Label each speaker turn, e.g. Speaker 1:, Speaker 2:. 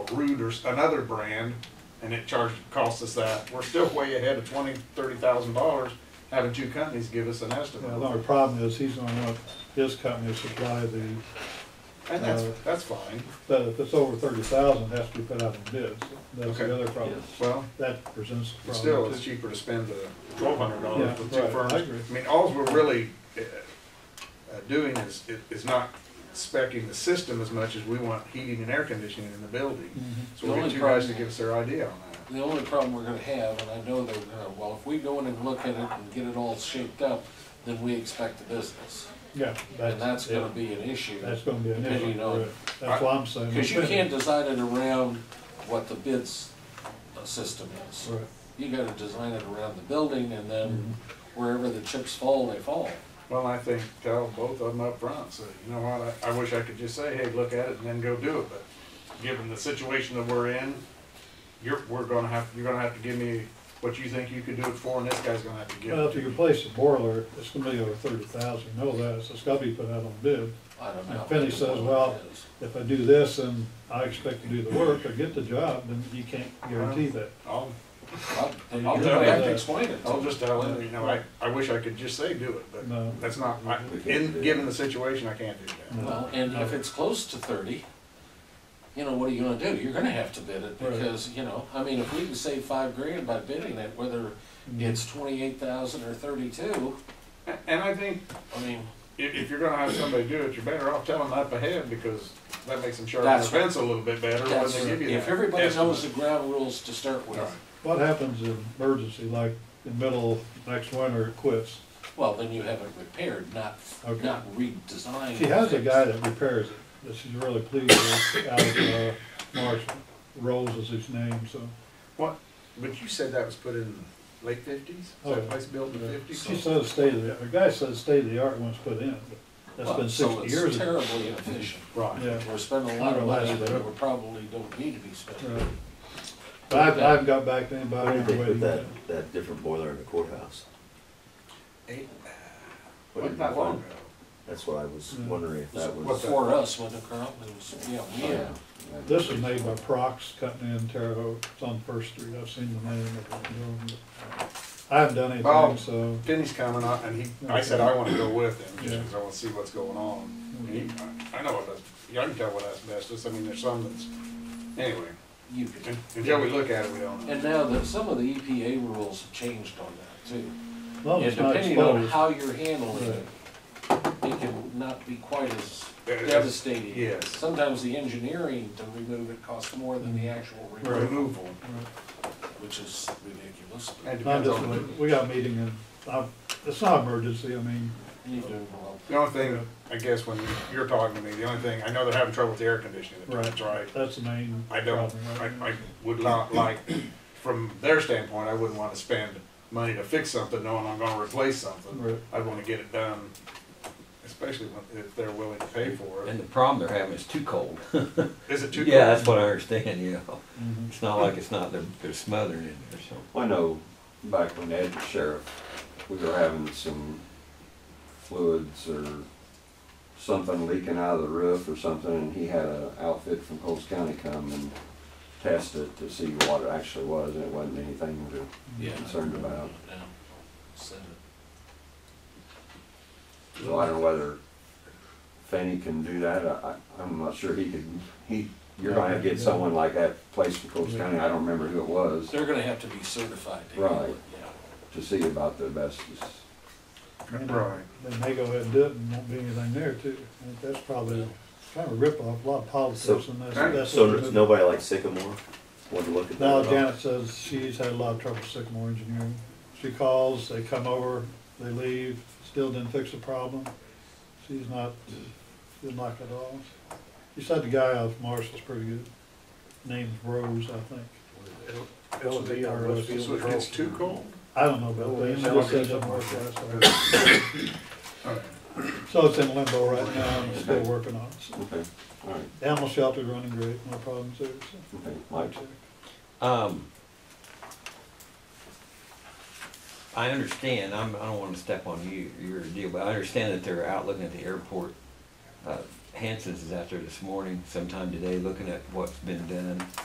Speaker 1: Root or s- another brand, and it charged, cost us that, we're still way ahead of twenty, thirty thousand dollars, having two companies give us an
Speaker 2: Yeah, the
Speaker 1: estimate.
Speaker 2: only problem is he's gonna want his company to supply the,
Speaker 1: And that's,
Speaker 2: uh,
Speaker 1: that's fine,
Speaker 2: but if it's over thirty thousand, it has to be put out in bids. That's
Speaker 1: Okay.
Speaker 2: the other problem.
Speaker 1: well,
Speaker 2: That presents a
Speaker 1: But still,
Speaker 2: problem
Speaker 1: it's
Speaker 2: too.
Speaker 1: cheaper to spend the twelve hundred dollars with
Speaker 2: Yeah,
Speaker 1: two
Speaker 2: right,
Speaker 1: firms.
Speaker 2: I agree.
Speaker 1: I mean, alls we're really uh, uh, doing is, is not specing the system as much as we want heating and air conditioning in the building.
Speaker 2: Mhm.
Speaker 1: So we'll get you guys to give us their idea on that.
Speaker 3: The only problem we're gonna have, and I know they're gonna, well, if we go in and look at it and get it all shaped up, then we expect the business.
Speaker 2: Yeah.
Speaker 3: And that's gonna
Speaker 2: yeah,
Speaker 3: be an issue.
Speaker 2: That's gonna be an
Speaker 3: depending
Speaker 2: issue,
Speaker 3: on-
Speaker 2: right. that's what I'm saying.
Speaker 3: Cause you can't design it around what the bids uh, system is.
Speaker 2: Right.
Speaker 3: You gotta design it around the building and then
Speaker 2: Mm-hmm.
Speaker 3: wherever the chips fall, they fall.
Speaker 1: Well, I think tell both of them up front. so you know what, I, I wish I could just say, hey, look at it and then go do it, but given the situation that we're in, you're, we're gonna have, you're gonna have to give me what you think you could do it for, and this guy's gonna have to give
Speaker 2: Well,
Speaker 1: it
Speaker 2: if
Speaker 1: to
Speaker 2: you
Speaker 1: you.
Speaker 2: replace the boiler, it's gonna be over thirty thousand, know that, so it's gotta be put out on bid.
Speaker 3: I don't know.
Speaker 2: And Finley says, well, If I do this and I expect to do the work or get the job, then you can't guarantee that.
Speaker 1: I'll
Speaker 3: I'll, I'll
Speaker 1: You're
Speaker 3: tell you, I have
Speaker 2: right.
Speaker 3: to explain it to
Speaker 1: I'll
Speaker 3: them.
Speaker 1: just tell him, you know, I, I wish I could just say do it, but
Speaker 2: No.
Speaker 1: that's not, I- in, given the situation, I can't do that.
Speaker 3: Well, and if it's close to thirty, you know, what are you gonna do? You're gonna have to bid it
Speaker 2: Right.
Speaker 3: because, you know, I mean, if we can save five grand by bidding it, whether
Speaker 2: Mm-hmm.
Speaker 3: it's twenty-eight thousand or thirty-two,
Speaker 1: A- And I think
Speaker 3: I mean,
Speaker 1: if, if you're gonna have somebody do it, you're better off telling them up ahead because that makes them sharpen their
Speaker 3: That's right.
Speaker 1: fence a little bit better when
Speaker 3: that's,
Speaker 1: they give you that.
Speaker 3: if everybody
Speaker 1: estimate.
Speaker 3: knows the ground rules to start with,
Speaker 1: Right.
Speaker 2: What happens in emergency, like in middle of next winter, it quits?
Speaker 3: well, then you have it repaired, not,
Speaker 2: Okay.
Speaker 3: not redesigned.
Speaker 2: She has a guy that repairs it, that she's really pleased with, out of, uh, Marshall. Rose is his name, so.
Speaker 1: What, but you said that was put in late fifties?
Speaker 2: Oh,
Speaker 1: Is that
Speaker 2: yeah.
Speaker 1: place built in the fifties?
Speaker 2: She says state of the, the guy says state of the art once put in, but that's
Speaker 3: Well,
Speaker 2: been
Speaker 3: So
Speaker 2: sixty years
Speaker 3: it's
Speaker 2: ago.
Speaker 3: terribly inefficient.
Speaker 1: Right.
Speaker 2: Yeah.
Speaker 3: We're spending a lot of money
Speaker 2: Right.
Speaker 3: that we probably don't need to be spending.
Speaker 2: Right. But I, I haven't got back to anybody.
Speaker 4: Why did
Speaker 2: I'm
Speaker 4: they put
Speaker 2: waiting.
Speaker 4: that, that different boiler in the courthouse?
Speaker 1: Eight,
Speaker 4: What did
Speaker 1: wasn't
Speaker 4: you
Speaker 1: that long
Speaker 4: find?
Speaker 1: ago.
Speaker 4: That's what I was
Speaker 2: Mm.
Speaker 4: wondering if that
Speaker 3: It was
Speaker 4: was.
Speaker 3: For us, when the current was, yeah, yeah.
Speaker 2: This is made by Prox Company in Terre Haute, it's on First Street, I've seen the name of it. you know, but I haven't done
Speaker 1: Bob.
Speaker 2: anything, so,
Speaker 1: Finney's coming up and he, I said I wanna go with him just because I wanna see what's going on. And he,
Speaker 2: Mm-hmm.
Speaker 1: I- I know what, as- yeah, I can tell what asbestos, I mean, there's some that's, anyway,
Speaker 3: You could
Speaker 1: un- until we look at it, we don't know.
Speaker 3: And now that some of the EPA rules have changed on that too.
Speaker 2: as long as
Speaker 3: And
Speaker 2: Oh, it's not
Speaker 3: depending on
Speaker 2: exposed.
Speaker 3: how you're handling it, it can not be quite as
Speaker 1: Yeah, it's-
Speaker 3: devastating.
Speaker 1: yes.
Speaker 3: Sometimes the engineering to remove it costs more than the actual
Speaker 2: Right.
Speaker 3: removal,
Speaker 1: Removal,
Speaker 2: Right.
Speaker 3: which is ridiculous. but
Speaker 1: and
Speaker 2: I'm
Speaker 1: depends
Speaker 2: just,
Speaker 1: on,
Speaker 2: we got a meeting and, I'm- it's not emergency, I mean,
Speaker 3: You do well.
Speaker 1: the only thing, I guess when you're talking to me, the only thing, I know they're having trouble with the air conditioning, that's right.
Speaker 2: that's the main
Speaker 1: I don't,
Speaker 2: problem.
Speaker 1: I,
Speaker 2: right?
Speaker 1: I would not like, from their standpoint, I wouldn't wanna spend money to fix something knowing I'm gonna replace something.
Speaker 2: Right.
Speaker 1: I wanna get it done, especially when- if they're willing to pay for
Speaker 5: And
Speaker 1: it.
Speaker 5: the problem they're having is too cold.
Speaker 1: Is it too?
Speaker 5: Yeah,
Speaker 1: cold?
Speaker 5: that's what I understand, yeah.
Speaker 2: Mhm.
Speaker 5: It's not like it's not, they're, they're smothering in there, so.
Speaker 4: I know back when Ed was sheriff, we were having some fluids or something leaking out of the roof or something, and he had an outfit from Coles County come and test it to see what it actually was, and it wasn't anything to
Speaker 3: Yeah.
Speaker 4: concerned about.
Speaker 3: Now, said it.
Speaker 4: So I don't know whether Fanny can do that, I, I- I'm not sure he could, he, you're gonna have to get someone like that placed in Coles County, I don't remember who it was,
Speaker 3: They're gonna have to be certified to handle it,
Speaker 4: Right. to see about the asbestos.
Speaker 2: And
Speaker 1: Right.
Speaker 2: They may go ahead and do it and won't be anything there too, I think that's probably kind of a ripoff, a lot of politics and that's,
Speaker 1: So-
Speaker 2: that's.
Speaker 4: So there's nobody like Sycamore, wanted to look at that?
Speaker 2: Now
Speaker 4: at all?
Speaker 2: Janet says she's had a lot of trouble with Sycamore Engineering. She calls, they come over, they leave, still didn't fix the problem. She's not, she didn't like it at all. She said the guy out of Marshall's pretty good. Name's Rose, I think.
Speaker 1: So they are-
Speaker 2: It's-
Speaker 1: So it gets too cold?
Speaker 2: I don't know about that. She just said it didn't work last
Speaker 1: Alright.
Speaker 2: time. So it's in limbo right now, and still working on it.
Speaker 4: Okay, all right,
Speaker 2: The Animal shelter's running great, no problems there, so.
Speaker 4: okay, Mike,
Speaker 5: Um, I understand, I'm, I don't wanna step on you, your deal, but I understand that they're out looking at the airport. Uh, Hanson's is out there this morning, sometime today, looking at what's been done.